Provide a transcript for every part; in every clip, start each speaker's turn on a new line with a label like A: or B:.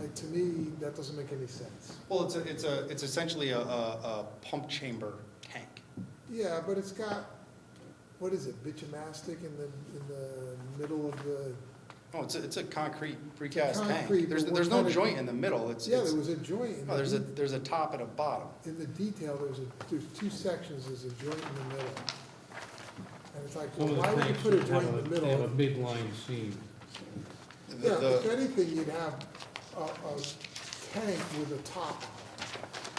A: it, to me, that doesn't make any sense.
B: Well, it's, a- it's a, it's essentially a, a, a pump chamber tank.
A: Yeah, but it's got, what is it, bitumastic in the, in the middle of the,
B: Oh, it's a, it's a concrete precast
A: Concrete,
B: tank. There's,
A: but
B: there's
A: what
B: no
A: kind of-
B: joint in the middle, it's,
A: yeah,
B: it's,
A: there was a joint. in
B: no, Oh, there's a,
A: the-
B: there's a top and a bottom.
A: In the detail, there's a, there's two sections, there's a joint in the middle. And it's like,
C: Some
A: well,
C: of the
A: why would you
C: tanks
A: put a
C: have
A: joint in the
C: a-
A: middle?
C: They have a big line seam.
B: The-
A: Yeah, if
B: the-
A: anything, you'd have a, a tank with a top.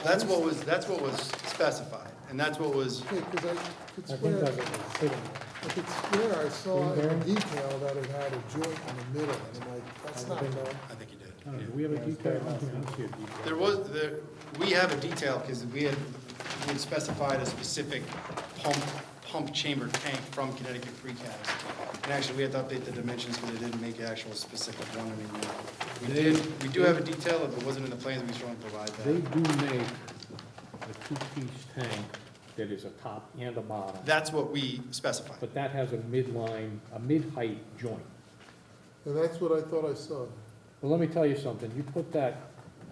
B: That's what was, that's what was specified, and that's what was,
A: Okay, because I could
D: I think
A: swear,
D: that's what it's sitting
A: I could swear I saw
D: Green
A: in
D: Bay?
A: detail that it had a joint in the middle, and I'm like, that's not,
B: I think you did.
C: I don't know,
B: yeah.
C: Do we have a
D: Yeah, it's
C: detail?
D: very
C: I
D: nice.
C: don't see a detail.
B: There was, there, we have a detail, because we had, we had specified a specific pump, pump chamber tank from Connecticut Precast. And actually, we had to update the dimensions, but it didn't make actual specific one anymore. We did, we do have a detail, if it wasn't in the plans, we strongly provide
C: They
B: that.
C: do make a two-piece tank that is a top and a bottom,
B: That's what we specified.
C: but that has a midline, a mid-height joint.
A: and that's what I thought I saw.
C: Well, let me tell you something, you put that,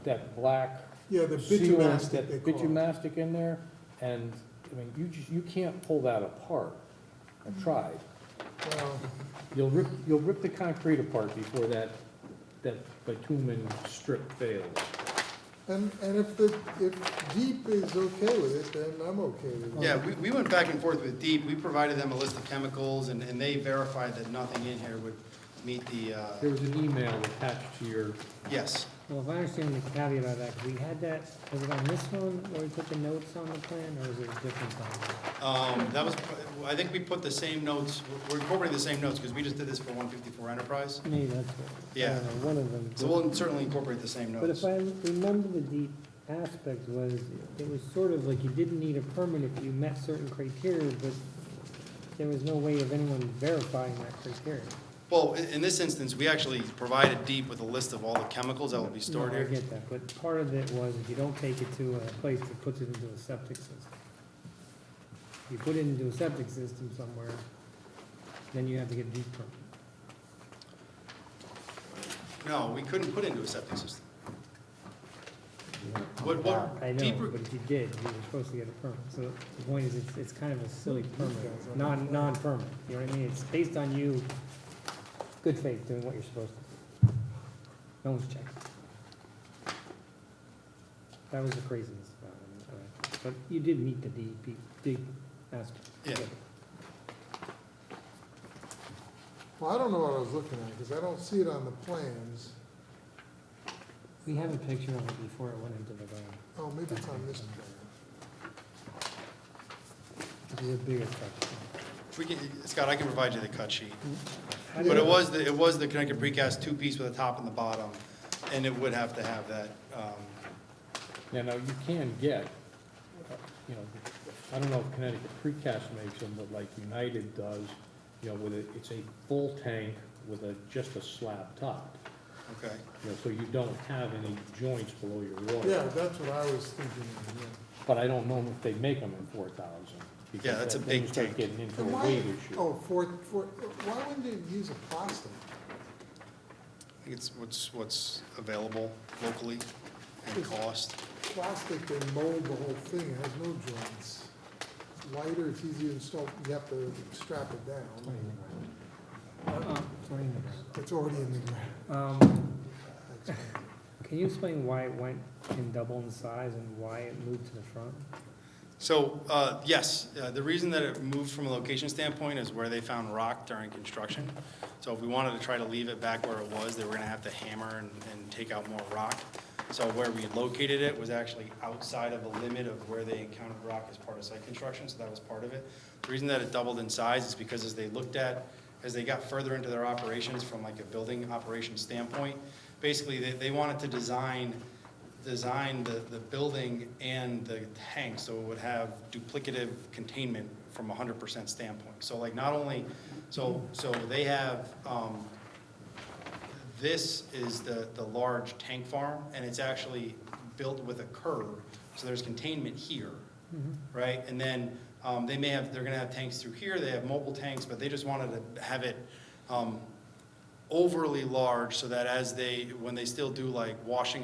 C: that black
A: Yeah, the
C: sealant,
A: bitumastic, they
C: that
A: call it.
C: bitumastic in there, and, I mean, you just, you can't pull that apart. I've tried.
A: Well,
C: You'll rip, you'll rip the concrete apart before that, that bitumen strip fails.
A: And, and if the, if Deep is okay with it, then I'm okay with it.
B: Yeah, we, we went back and forth with Deep, we provided them a list of chemicals, and, and they verified that nothing in here would meet the,
C: There
B: uh,
C: was an email attached to your,
B: yes.
D: Well, if I understand the caveat of that, we had that, was it on this one where we put the notes on the plan, or was it a different plan?
B: Um, that was, I think we put the same notes, we're incorporating the same notes, because we just did this for one fifty-four Enterprise.
D: Maybe that's what, I
B: Yeah.
D: don't know, one of them.
B: So we'll certainly incorporate the same
D: But
B: notes.
D: if I remember the deep aspect was, it was sort of like you didn't need a permit if you met certain criteria, but there was no way of anyone verifying that criteria.
B: Well, in, in this instance, we actually provided Deep with a list of all the chemicals that will be stored
D: No, I
B: here.
D: get that, but part of it was if you don't take it to a place that puts it into a septic system. If you put it into a septic system somewhere, then you have to get deep permit.
B: No, we couldn't put into a septic system. What, what?
D: Ah, I
B: Deep
D: know,
B: re-
D: but if you did, you were supposed to get a permit, so the point is, it's, it's kind of a silly permit, non, non-permit, you know what I mean? It's based on you, good faith, doing what you're supposed to. No one's checking. That was the craziness about it, uh, but you did meet the E DEP, DEP aspect.
B: Yeah.
A: Well, I don't know what I was looking at, because I don't see it on the plans.
D: We have a picture of it before it went into the ground,
A: Oh, maybe it's on this plan.
D: it was a bigger structure.
B: We can, Scott, I can provide you the cut sheet. But it was, the it was the Connecticut precast two-piece with a top and the bottom, and it would have to have that, um,
C: now, now, you can get, uh, you know, I don't know if Connecticut Precast makes them, but like United does, you know, with it, it's a full tank with a, just a slab top.
B: okay.
C: You know, so you don't have any joints below your water.
A: Yeah, that's what I was thinking, of, yeah.
C: But I don't know if they make them in four thousand.
B: Yeah, that's a big tank.
C: Getting into a
A: And why-
C: weight issue.
A: Oh, for, for, why wouldn't they use a plastic?
B: I think it's what's, what's available locally and cost.
A: Plastic, they mold the whole thing, it has no joints. It's Lighter, it's easier to install, you have to strap it down, it's already in the ground.
D: Um,
A: That's fine.
D: Can you explain why it went in double in size and why it moved to the front?
B: So, uh, yes, uh, the reason that it moved from a location standpoint is where they found rock during construction. So if we wanted to try to leave it back where it was, they were gonna have to hammer and, and take out more rock. So where we located it was actually outside of the limit of where they encountered rock as part of site construction, so that was part of it. The reason that it doubled in size is because as they looked at, as they got further into their operations from like a building operation standpoint, basically, they, they wanted to design design the, the building and the tank, so it would have duplicative containment from a hundred percent standpoint. So like not only, so, so they have, um, this is the, the large tank farm, and it's actually built with a curb, so there's containment here, right? And then, um, they may have, they're gonna have tanks through here, they have mobile tanks, but they just wanted to have it, um, overly large so that as they, when they still do like washing